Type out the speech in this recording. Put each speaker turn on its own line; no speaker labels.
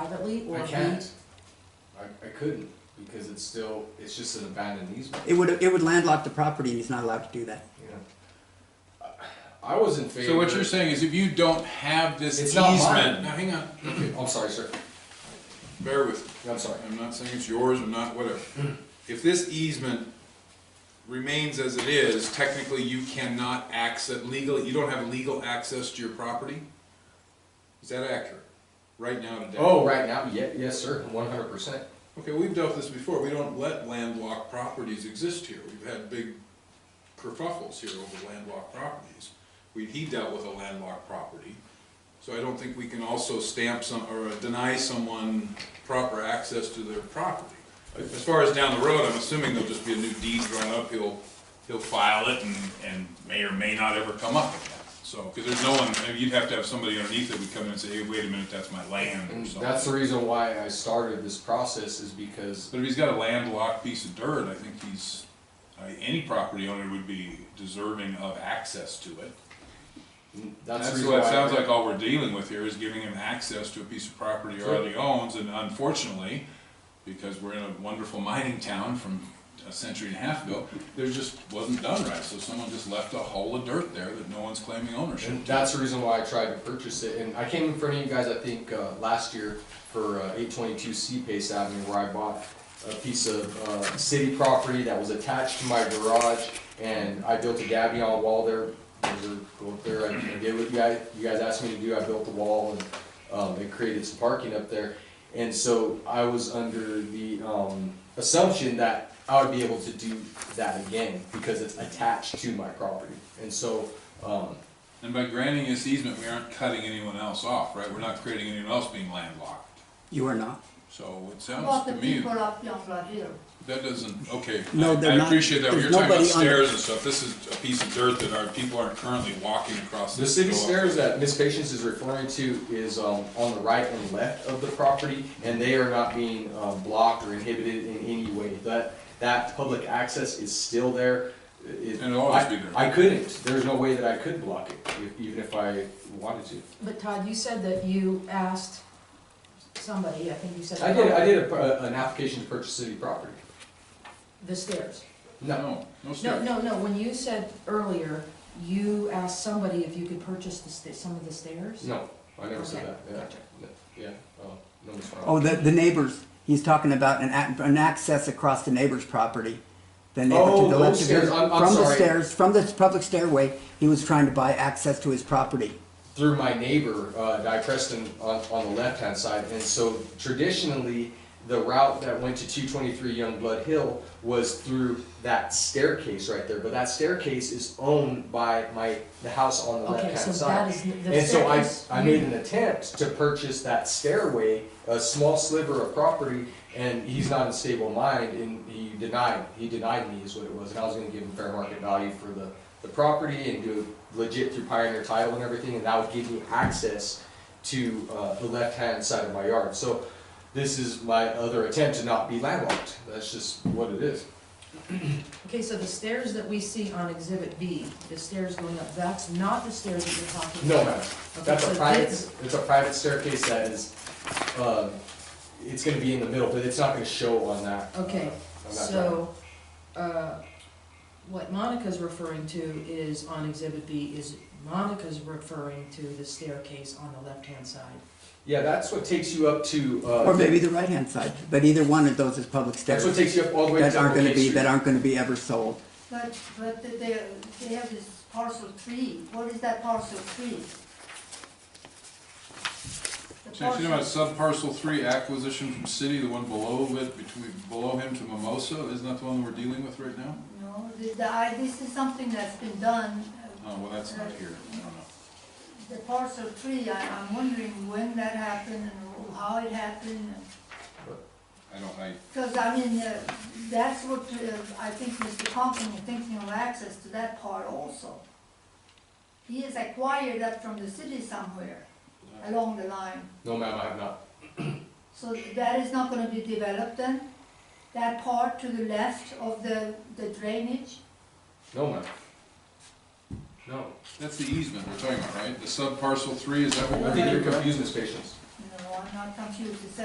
privately or
I can't.
rent?
I, I couldn't, because it's still, it's just an abandoned easement.
It would, it would landlock the property and he's not allowed to do that.
I was in favor.
So what you're saying is if you don't have this
It's not
easement,
mine.
now hang on,
Okay, I'm sorry, sir.
bear with me.
I'm sorry.
I'm not saying it's yours, I'm not, whatever.
Hmm.
If this easement remains as it is, technically you cannot access, legally, you don't have legal access to your property? Is that accurate? Right now today?
Oh, right now, yeah, yes, sir, one hundred percent.
Okay, we've dealt with this before, we don't let landlocked properties exist here, we've had big kerfuffles here over landlocked properties. We, he dealt with a landlocked property, so I don't think we can also stamp some, or deny someone proper access to their property. As far as down the road, I'm assuming there'll just be a new deed drawn up, he'll, he'll file it and, and may or may not ever come up again. So, because there's no one, you'd have to have somebody underneath it would come in and say, hey, wait a minute, that's my land or
And
something.
Mm, that's the reason why I started this process is because,
But if he's got a landlocked piece of dirt, I think he's, I any property owner would be deserving of access to it.
that's the
That's
reason
what
why.
it sounds
I-
like all we're dealing with here is giving him access to a piece of property he already owns, and unfortunately, because we're in a wonderful mining town from a century and a half ago, there just wasn't done right, so someone just left a hole of dirt there that no one's claiming ownership.
And that's the reason why I tried to purchase it, and I came in front of you guys, I think, uh, last year for, uh, eight twenty-two C Pace Avenue, where I bought a piece of, uh, city property that was attached to my garage, and I built a gabion wall there, Those are go up there, I I did what you guys, you guys asked me to do, I built the wall, and, um, it created some parking up there. And so I was under the, um, assumption that I would be able to do that again, because it's attached to my property, and so, um,
And by granting this easement, we aren't cutting anyone else off, right? We're not creating anyone else being landlocked.
You are not.
So it
Well,
sounds
the
to me.
people up in Brazil.
That doesn't, okay, I
No, they're
I
not.
appreciate that, when you're
There's
talking
nobody
about
on the-
stairs and stuff, this is a piece of dirt that our, people aren't currently walking across.
The
this
city
to go up.
stairs that Miss Patience is referring to is um, on the right and left of the property, and they are not being uh, blocked or inhibited in any way. That, that public access is still there. It-
And it'll always
I-
be there.
I couldn't, there's no way that I could block it, if- even if I wanted to.
But Todd, you said that you asked somebody, I think you said.
I did, I did a pr- an application to purchase city property.
The stairs.
No,
No, no
No,
stairs.
no, no, when you said earlier, you asked somebody if you could purchase the sta, some of the stairs?
no, I never said that,
Okay,
yeah.
gotcha.
No, Yeah, oh, no, Miss Brown.
Oh, the, the neighbors, he's talking about an, ac- an access across the neighbor's property. The neighbor
Oh,
to the left
those
of yours,
stairs. I'm- I'm
from the
sorry.
stairs, from the public stairway, he was trying to buy access to his property.
through my neighbor, uh, Di Preston, on, on the left-hand side. And so traditionally, the route that went to two twenty-three Youngblood Hill was through that staircase right there. But that staircase is owned by my, the house on the
Okay, so that
left-hand side.
is, the
And so I,
staircase.
I made an attempt to purchase that stairway, a small sliver of property, and he's not in stable mind, and he denied, he denied me is what it was, and I was gonna give him fair market value for the, the property and do it legit through Pioneer Title and everything, and that would give me access to, uh, the left-hand side of my yard, so this is my other attempt to not be landlocked, that's just what it is.
Okay, so the stairs that we see on exhibit B, the stairs going up, that's not the stairs that you're talking
No,
about?
ma'am.
Okay,
That's
so
a private,
this-
it's a private staircase that is, uh, it's gonna be in the middle, but it's not gonna show on that. uh,
Okay,
on that drawing.
So, uh, what Monica's referring to is on exhibit B, is Monica's referring to the staircase on the left-hand side.
Yeah, that's what takes you up to, uh.
Or maybe the right-hand side, but either one of those is public
That's what
stairs
takes you up all the way to
that aren't gonna
Cupcake
be,
Street.
that aren't gonna be ever sold.
But, but they, they have this parcel three, what is that parcel three? The
So you're talking about
parcel-
subparcel three acquisition from city, the one below it, between, below him to Mimosa, isn't that the one we're dealing with right now?
No, the, the, I, this is something that's been done, uh,
Oh, well, that's not here, I don't know.
the parcel three, I, I'm wondering when that happened and how it happened.
I don't, I,
Cause I mean, uh, that's what, uh, I think Mr. Compton is thinking of access to that part also. He has acquired that from the city somewhere along the line.
No, ma'am, I have not.
So that is not gonna be developed then? That part to the left of the, the drainage?
No, ma'am. No.
that's the easement we're talking about, right? The subparcel three, is that what
I
we're
think you're
doing?
confusing Miss Patience.
No. no, I'm not confused, it says